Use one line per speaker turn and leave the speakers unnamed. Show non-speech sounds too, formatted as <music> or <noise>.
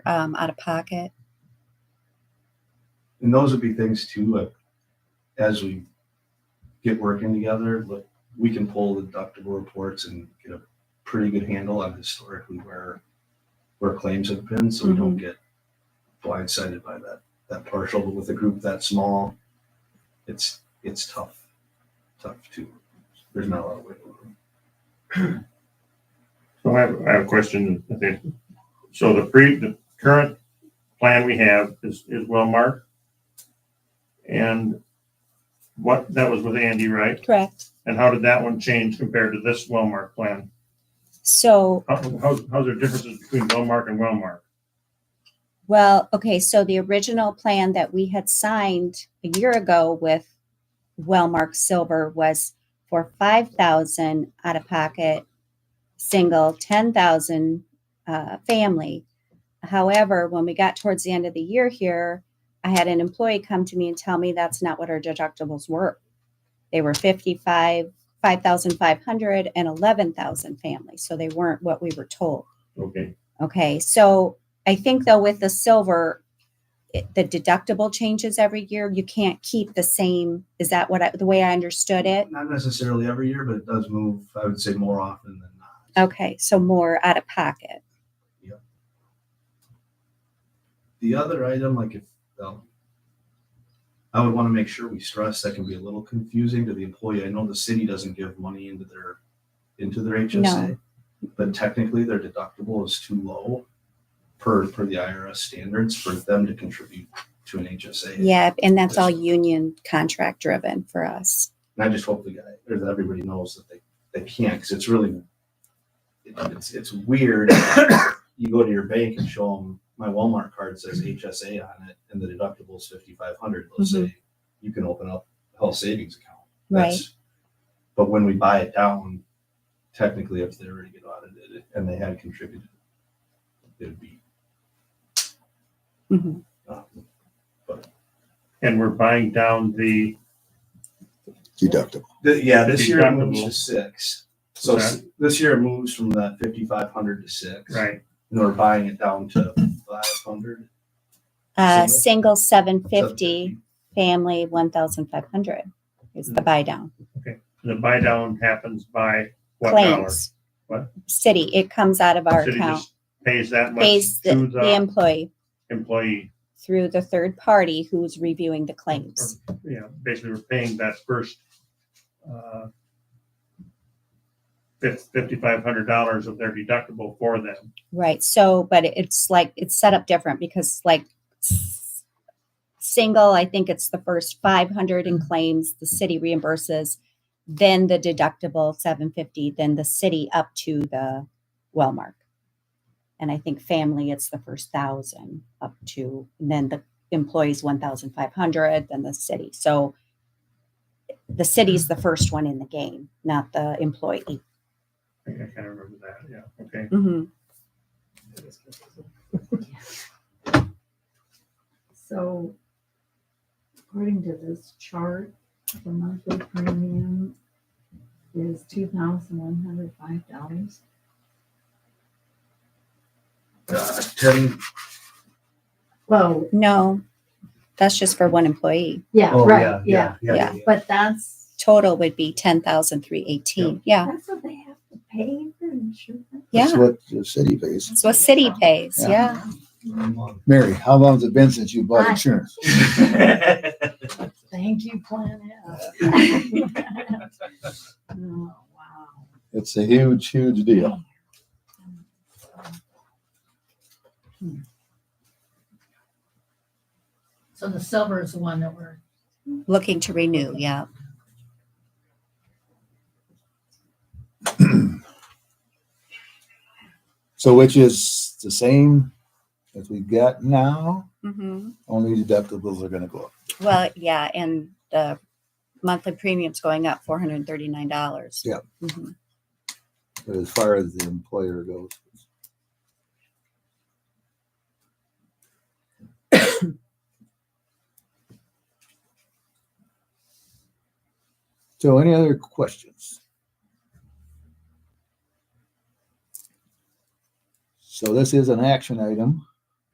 um, out of pocket.
And those would be things too, like, as we get working together, look, we can pull the deductible reports and get a pretty good handle on historically where, where claims have been, so we don't get blindsided by that, that partial, but with a group that small, it's, it's tough, tough too. There's not a lot of wiggle room.
So I have, I have a question, I think. So the pre, the current plan we have is, is well marked. And what, that was with Andy, right?
Correct.
And how did that one change compared to this well marked plan?
So,
How, how, how's there differences between well marked and well marked?
well, okay, so the original plan that we had signed a year ago with Wellmark Silver was for five thousand out of pocket, single, ten thousand, uh, family. However, when we got towards the end of the year here, I had an employee come to me and tell me that's not what our deductibles were. They were fifty-five, five thousand five hundred and eleven thousand families, so they weren't what we were told.
Okay,
Okay, so I think though with the silver, it, the deductible changes every year. You can't keep the same. Is that what I, the way I understood it?
Not necessarily every year, but it does move, I would say more often than not.
Okay, so more out of pocket.
The other item, like if, um, I would want to make sure we stress that can be a little confusing to the employee. I know the city doesn't give money into their, into their HSA. But technically their deductible is too low per, per the IRS standards for them to contribute to an HSA.
Yeah, and that's all union contract driven for us.
And I just hope the guy, or that everybody knows that they, they can't, because it's really, it's, it's weird. You go to your bank and show them, my Walmart card says HSA on it, and the deductible's fifty-five hundred, they'll say, you can open up health savings account.
Right.
That's- But when we buy it down, technically, if they already get audited and they had contributed, it'd be,
Mhm.
um,
and we're buying down the,
deductible.
Th- yeah, this year it moves
Deductible.
to six. So
Okay.
s- this year it moves from that fifty-five hundred to six.
right,
and we're buying it down to five hundred.
Uh,
Single?
single seven fifty, family one thousand five hundred is the
Mhm.
buy down.
the buy down happens by what dollar?
Claims.
What?
City, it comes out of our
City
account.
just Pays that much
Pays the,
to
the
the
employee
employee?
through the third party who's reviewing the claims.
or, you know, basically we're paying that first uh, fif- $5,500 of their deductible for them.
Right. So, but it- it's like it's set up different because like s- single, I think it's the first 500 in claims the city reimburses, then the deductible 750, then the city up to the well mark. And I think family it's the first 1000 up to and then the employees 1500, then the city. So the city's the first one in the game, not the employee.
I think I kind of remember that, yeah, okay.
So according to this chart, the monthly premium is two thousand one hundred five dollars.
Uh, ten,
Well,
No, that's just for one employee.
yeah,
oh,
right, yeah,
yeah, yeah, yeah, yeah.
but that's,
Total would be ten thousand three eighteen. Yeah,
that's what they have to pay for insurance.
yeah.
That's what the city pays.
That's what city pays.
Yeah.
Yeah.
One month.
Mary, how long has it been since you bought
Hi.
insurance?
<laughs>
Thank you, Planet. <laughs> Oh, wow.
It's a huge, huge deal.
So the silver is the one that we're,
Looking to renew. Yeah.
So which is the same as we got now,
hmm
only deductibles are gonna go up.
Well, yeah, and the monthly premium's going up four hundred thirty nine dollars. Mm-hmm.
Yeah. But as far as the employer goes, <coughs> so any other questions? So this is an action item.